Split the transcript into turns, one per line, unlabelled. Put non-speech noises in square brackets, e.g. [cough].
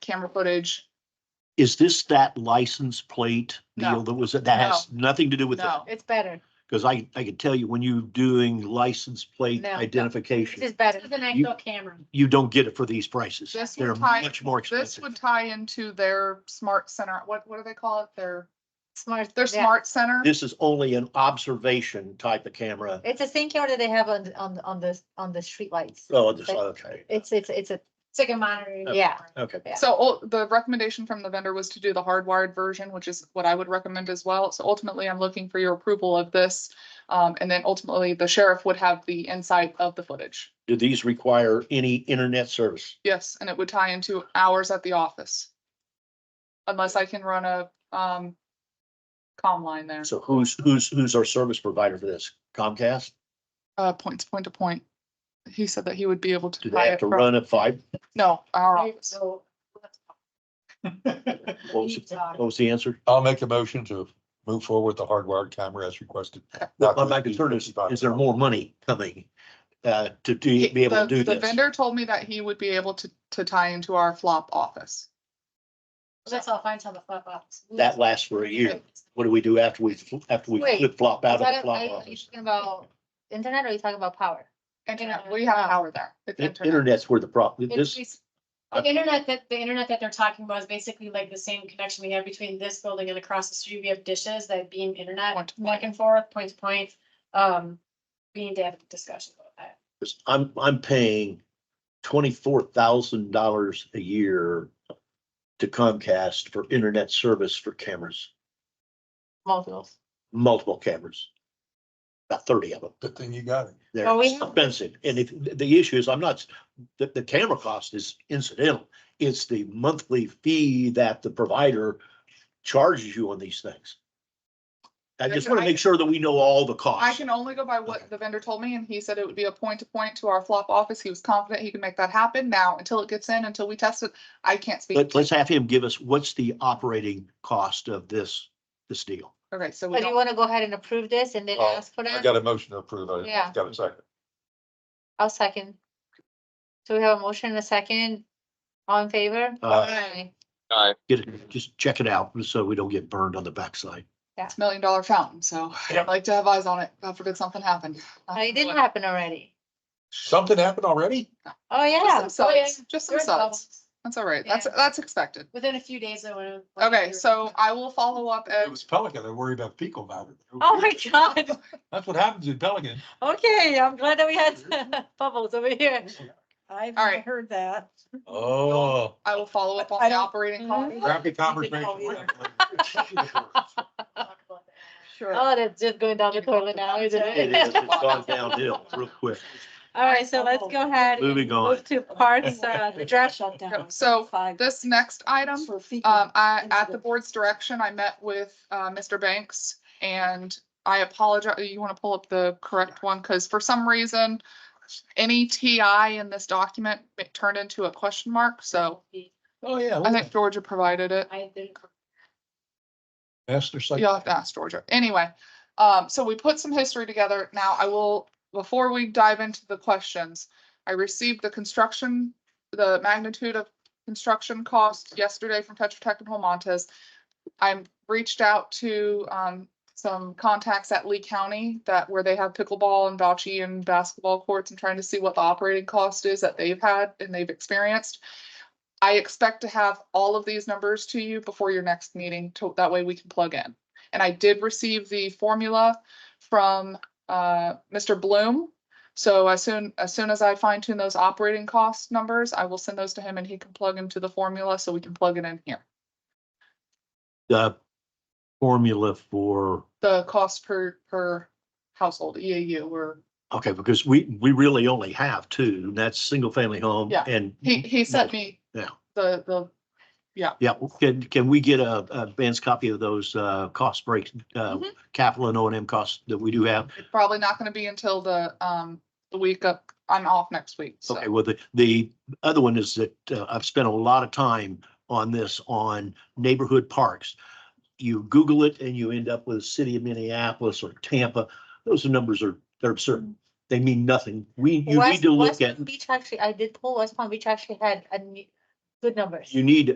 camera footage.
Is this that license plate
No.
deal that was, that has nothing to do with that?
No,
It's better.
Because I, I could tell you when you doing license plate
No, no. This
identification,
is better.
This is an
You-
actual camera.
you don't get it for these prices.
This
They're
would tie-
much more
this would
expensive.
tie into their smart center. What, what do they call it? Their,
Smart.
their
yeah.
smart center?
This is only an observation type of camera.
It's a thing camera that they have on, the- on, the- on the, on the streetlights.
Oh, this, okay,
It's, it's, it's a,
It's like a monitor.
Yeah.
okay.
yeah.
So ul- the recommendation from the vendor was to do the hardwired version, which is what I would recommend as well. So ultimately, I'm looking for your approval of this. Um, and then ultimately, the sheriff would have the insight of the footage.
Do these require any internet service?
Yes, and it would tie into hours at the office. Unless I can run a, um, comm line there,
So who's, who's, who's our service provider for this? Comcast?
uh, points, point to point. He said that he would be able to.
Do
tie
they have
it
to
from-
run a five?
No, our
Right,
office.
So.
What was,
Deep talk.
what was the answer?
I'll make a motion to move forward the hardwired camera as requested.
Well, my concern is, is there more money coming, uh, to do,
He-
be able to
the-
do
The
this?
vendor told me that he would be able to, to tie into our flop office.
That's all fine till the flip flops.
That lasts for a year. What do we do after we, after we
Wait,
flip flop
is
out of the
that a-
flop
are you
office?
talking about internet or are you talking about power?
Internet, we have power there. It's
In-
internet.
Internet's where the problem,
It's
this,
basi- The internet that, the internet that they're talking about is basically like the same connection we have between this building and across the street. We have dishes that beam
Point
internet
to
back and forth, point to point. Um, we need to have a discussion about that.
I'm, I'm paying twenty-four thousand dollars a year to Comcast for internet service for cameras,
Multiples.
multiple cameras. About thirty of them.
Good thing you got it.
They're
Well, we have-
expensive. And if, the- the issue is, I'm not, the, the camera cost is incidental. It's the monthly fee that the provider charges you on these things. I just want to make sure that we know all the
I
costs.
can only go by what
Okay.
the vendor told me and he said it would be a point to point to our flop office. He was confident he could make that happen. Now, until it gets in, until we test it, I can't speak.
Let, let's have him give us, what's the operating cost of this, this deal?
Okay, so we
Or do you
don't,
want to go ahead and approve this and then
Uh,
ask for
I
that?
got a motion to approve. I
Yeah.
got a second.
I'll second. So we have a motion and a second. All in favor?
Uh,
Aye.
get it, just check it out so we don't get burned on the backside.
it's a million dollar fountain, so I'd like to have eyes on it. God forbid something happened.
Oh, It didn't happen already.
Something happened already?
Oh,
Just
yeah.
some subs,
yeah.
just
There
some
was
subs.
bubbles.
That's all right. That's,
Yeah.
that's expected.
Within a few days, I would.
Okay, so I will follow up
It
and
was Pelican. I worry about fecal matter.
Oh, my [laughs] God.
That's what happens in Pelican.
Okay, I'm glad that we had [laughs] bubbles over here. I've
All right.
heard that.
Oh.
I will follow up
I
on the
don't-
operating
Mhm.
cost.
Grab the conversation.
Sure.
Oh, that's just going down the toilet now, isn't
It
it?
is, it's gone downhill real quick.
[laughs] All right, so let's go ahead. and
Moving on.
Move to parks, uh,
[laughs]
the draft shutdown.
So this next item Um, I, at the
incident.
board's direction, I met with, uh, Mr. Banks and I apologize, you want to pull up the correct one? Because for some reason, any TI in this document it turned into a question mark, so
Oh, yeah.
I
look
think
at
Georgia provided it.
I think.
Master psych.
You'll have to ask Georgia. Anyway, um, so we put some history together. Now I will, before we dive into the questions, I received the construction, the magnitude of construction cost yesterday from Tetra Tech and Holmontes. I'm reached out to, um, some contacts at Lee County that where they have pickleball and bocce and basketball courts and trying to see what the operating cost is that they've had and they've experienced. I expect to have all of these numbers to you before your next meeting, to, that way we can plug in. And I did receive the formula from uh, Mr. Bloom. So as soon, as soon as I fine tune those operating cost numbers, I will send those to him and he can plug into the formula so we can plug it in here.
The formula for
The cost per, per household, EAU, or,
Okay, because we, we really only have two, and that's single family home
Yeah.
and.
he, he sent me
Mm-hmm. Yeah.
the, the,
Yeah, can, can we get a, a Ben's copy of those, uh, cost breaks, uh,
Mhm. capital
capital and O and M costs that we do have?
it's probably not gonna be until the, um, the week up, I'm off next week, so.
Okay, well, the, the other one is that, uh, I've spent a lot of time on this on neighborhood parks. You Google it and you end up with the city of Minneapolis or Tampa. Those numbers are,
Mm-hmm.
they're absurd. They mean nothing. We, you
West-
need to look
West
at,
Palm Beach actually, I did pull West Palm Beach actually had a ne- good numbers.
you need